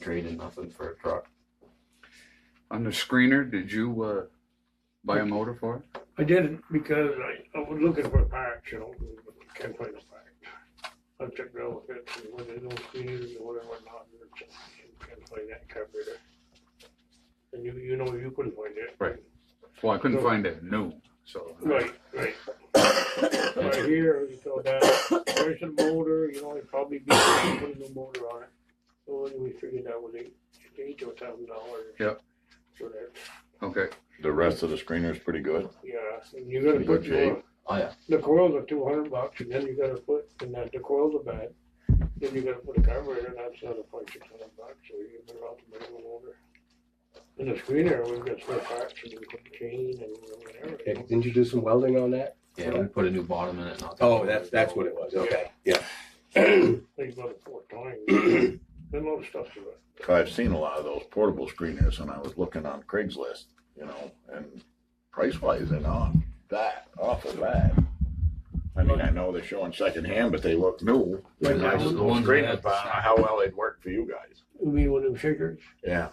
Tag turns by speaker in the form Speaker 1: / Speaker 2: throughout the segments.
Speaker 1: draining nothing for a truck.
Speaker 2: On the screener, did you uh, buy a motor for it?
Speaker 3: I didn't because I, I was looking for a patch, you know, but can't find a patch. I checked out with it, and when they don't clean it or whatever, not, and just can't find that carburetor. And you, you know, you couldn't find it.
Speaker 2: Right. Well, I couldn't
Speaker 3: No.
Speaker 2: find it new, so.
Speaker 3: Right, right. Right here, you go down, there's a motor, you know, it'd probably be, put a new motor on it. So anyway, figured that was eight, eight to a thousand dollars.
Speaker 2: Yep.
Speaker 3: So that,
Speaker 2: Okay,
Speaker 4: The rest of the screener's pretty good.
Speaker 3: yeah, and you gotta put
Speaker 4: Good shape.
Speaker 3: your,
Speaker 1: Oh yeah,
Speaker 3: The coils are two hundred bucks, and then you gotta put, and that, the coils are bad, then you gotta put a carburetor, and that's another point six hundred bucks, so you better off the minimum order. And the screener, we've got spare parts, and we put the chain and whatever.
Speaker 5: Okay, didn't you do some welding on that?
Speaker 1: yeah. We put a new bottom in it. Not that
Speaker 5: Oh,
Speaker 1: long
Speaker 5: that's,
Speaker 1: ago.
Speaker 5: that's what it was, okay, yeah.
Speaker 3: Think about it four times, and a lot of stuff to it.
Speaker 4: I've seen a lot of those portable screeners and I was looking on Craigslist, you know, and price wise, they're not that awful bad. I mean, I know they're showing secondhand, but they look new.
Speaker 3: Like
Speaker 4: And I
Speaker 3: that
Speaker 4: was
Speaker 2: one?
Speaker 4: those
Speaker 2: Ones
Speaker 4: screeners,
Speaker 2: that-
Speaker 4: but I don't know how well they'd work for you guys.
Speaker 3: You mean with them shakers?
Speaker 4: Yeah,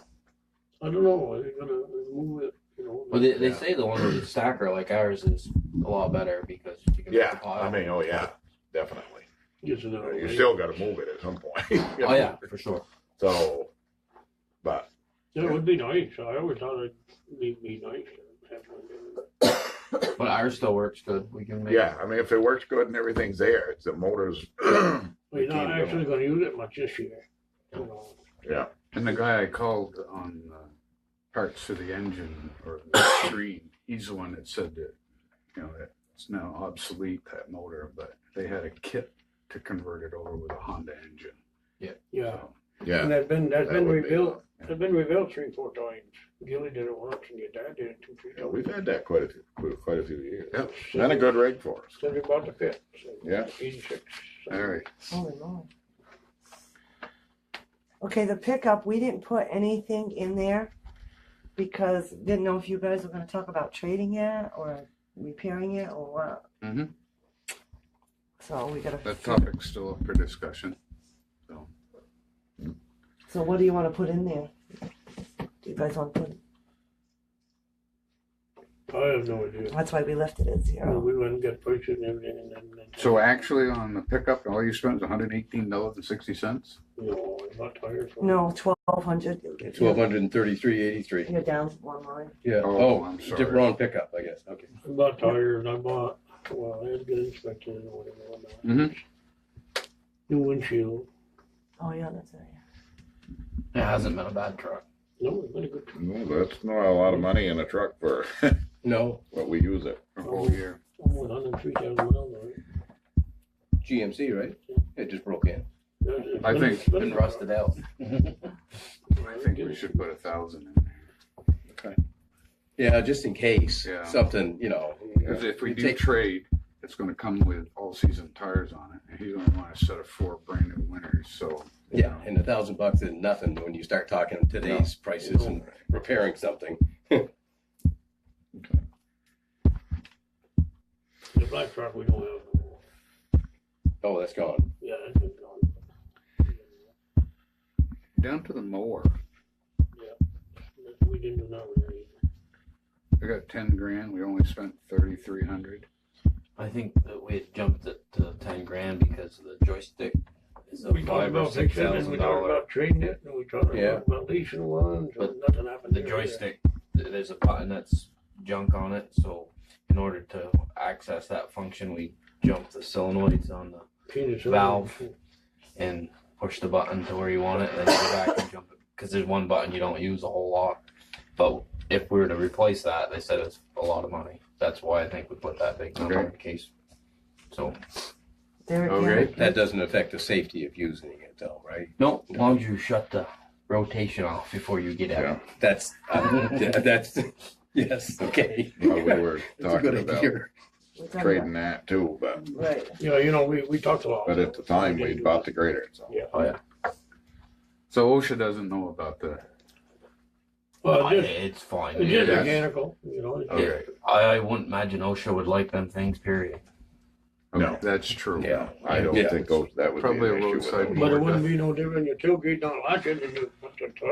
Speaker 3: I don't know, are they gonna move it, you know?
Speaker 1: Well, they, they
Speaker 4: Yeah.
Speaker 1: say the one with the stacker like ours is a lot better because you can make the
Speaker 4: yeah,
Speaker 1: pile.
Speaker 4: I mean, oh yeah, definitely.
Speaker 3: Just another
Speaker 4: You
Speaker 3: way.
Speaker 4: still gotta move it at some point. you
Speaker 1: oh
Speaker 4: know?
Speaker 1: yeah, for sure.
Speaker 4: So, but,
Speaker 3: That would be nice, I always thought it'd be, be nice to have one.
Speaker 1: But ours still works good. We can make.
Speaker 4: yeah, I mean, if it works good and everything's there, it's the motors,
Speaker 3: We're not
Speaker 4: Keep it
Speaker 3: actually
Speaker 4: going.
Speaker 3: gonna use it much this year, you know.
Speaker 4: yeah.
Speaker 2: and the guy I called on uh, parts to the engine or the screen, he's the one that said that, you know, that it's now obsolete, that motor, but they had a kit to convert it over with a Honda engine.
Speaker 3: Yeah.
Speaker 2: So,
Speaker 4: Yeah,
Speaker 3: And that's been, that's
Speaker 4: That
Speaker 3: been
Speaker 4: would be
Speaker 3: rebuilt, that's been rebuilt three, four times. Gilly did it once and your dad did it two, three
Speaker 4: yeah,
Speaker 3: times.
Speaker 4: we've had that quite a few, quite a few years.
Speaker 2: Yep.
Speaker 4: And a good rig for us.
Speaker 3: Since we bought the pit. so
Speaker 4: Yeah.
Speaker 3: Eighty-six. so-
Speaker 2: All right,
Speaker 6: Holy moly. Okay, the pickup, we didn't put anything in there because didn't know if you guys were gonna talk about trading it or repairing it or what.
Speaker 2: Mhm.
Speaker 6: So we gotta,
Speaker 2: that topic's still up for discussion.
Speaker 6: so what do you wanna put in there? Do you guys wanna put,
Speaker 3: I have no idea.
Speaker 6: that's why we left it at
Speaker 3: Well,
Speaker 6: zero.
Speaker 3: We went and got prices and everything and then. and-
Speaker 2: So actually on the pickup, all you spent was hundred eighteen dollars and sixty cents?
Speaker 3: No, I'm not tired. so-
Speaker 6: No, twelve hundred.
Speaker 5: Twelve hundred and thirty-three eighty-three.
Speaker 6: You're down one line.
Speaker 5: Yeah,
Speaker 2: Oh,
Speaker 5: oh,
Speaker 2: I'm
Speaker 5: di-
Speaker 2: sorry.
Speaker 5: wrong pickup, I guess, okay.
Speaker 3: I'm not tired and I bought, well, I had to get inspected and whatever. and all that.
Speaker 2: Mhm.
Speaker 1: Mm-hmm.
Speaker 3: New windshield.
Speaker 6: Oh, yeah, that's it.
Speaker 1: It hasn't been a bad truck.
Speaker 3: No, it's been a good,
Speaker 4: No, that's not a lot of money in a truck for
Speaker 5: No,
Speaker 4: what we use it.
Speaker 2: For a
Speaker 3: Oh,
Speaker 2: whole year.
Speaker 3: almost hundred and three thousand miles on it.
Speaker 5: GMC, right? It just broke in.
Speaker 3: It's- it's
Speaker 2: I
Speaker 3: been-
Speaker 2: think
Speaker 3: it's been
Speaker 1: Been
Speaker 3: a-
Speaker 1: rusted out.
Speaker 2: I think we should put a thousand in there.
Speaker 5: Yeah, just in case,
Speaker 2: Yeah.
Speaker 5: something, you know.
Speaker 2: Cause if we
Speaker 5: You
Speaker 2: do
Speaker 5: take-
Speaker 2: trade, it's gonna come with all season tires on it, and he's gonna want a set of four brand new winners, so. you
Speaker 5: Yeah,
Speaker 2: know,
Speaker 5: and a thousand bucks is nothing when you start talking today's prices and repairing something.
Speaker 3: The black truck we don't have no more.
Speaker 5: Oh, that's gone.
Speaker 3: Yeah, it's been gone.
Speaker 2: Down to the mower,
Speaker 3: We didn't do that one either.
Speaker 2: we got ten grand, we only spent thirty-three hundred.
Speaker 1: I think that we had jumped it to ten grand because of the joystick is a
Speaker 3: We talked
Speaker 1: five or
Speaker 3: about
Speaker 1: six
Speaker 3: fixing it, and we
Speaker 1: thousand
Speaker 3: talked
Speaker 1: dollar.
Speaker 3: about trading it, and we talked
Speaker 5: Yeah.
Speaker 3: about about leasing ones,
Speaker 1: But
Speaker 3: and nothing happened.
Speaker 1: The
Speaker 3: there.
Speaker 1: joystick, th- there's a button that's junk on it, so in order to access that function, we jump the solenoids on the
Speaker 3: Penis
Speaker 1: valve. and push the button to where you want it, and then go back and jump it. Because there's one button you don't use a whole lot. But if we were to replace that, they said it's a lot of money. That's why I think we put that big number in case. So
Speaker 6: There
Speaker 2: Okay.
Speaker 6: again.
Speaker 5: That doesn't affect the safety of using it though, right?
Speaker 1: no, as long as you shut the rotation off before you get at it.
Speaker 5: That's, uh, that's, yes, okay.
Speaker 4: Well, we were
Speaker 5: That's a
Speaker 4: talking
Speaker 5: good
Speaker 4: about
Speaker 5: idea.
Speaker 6: We're done
Speaker 4: trading that too, but
Speaker 6: now. Right,
Speaker 3: Yeah, you know, we, we talked a lot.
Speaker 4: but at the time we
Speaker 3: didn't do
Speaker 4: bought
Speaker 3: that.
Speaker 4: the grader. So
Speaker 3: Yeah.
Speaker 1: Oh yeah,
Speaker 2: So OSHA doesn't know about the,
Speaker 3: Well,
Speaker 1: Oh,
Speaker 3: just,
Speaker 1: it's fine.
Speaker 3: it's
Speaker 1: Yeah,
Speaker 3: just
Speaker 4: that's-
Speaker 3: mechanical, you know. it's-
Speaker 4: okay,
Speaker 1: I, I wouldn't imagine OSHA would like them things. Period.
Speaker 2: okay,
Speaker 4: No.
Speaker 2: that's true.
Speaker 4: yeah, I don't
Speaker 5: Yeah.
Speaker 4: think those- that would be
Speaker 2: Probably a
Speaker 4: an issue with
Speaker 2: roadside
Speaker 4: them.
Speaker 3: But it
Speaker 2: Lord,
Speaker 3: wouldn't
Speaker 2: that-
Speaker 3: be no different, your tailgate don't like it, and you put
Speaker 7: to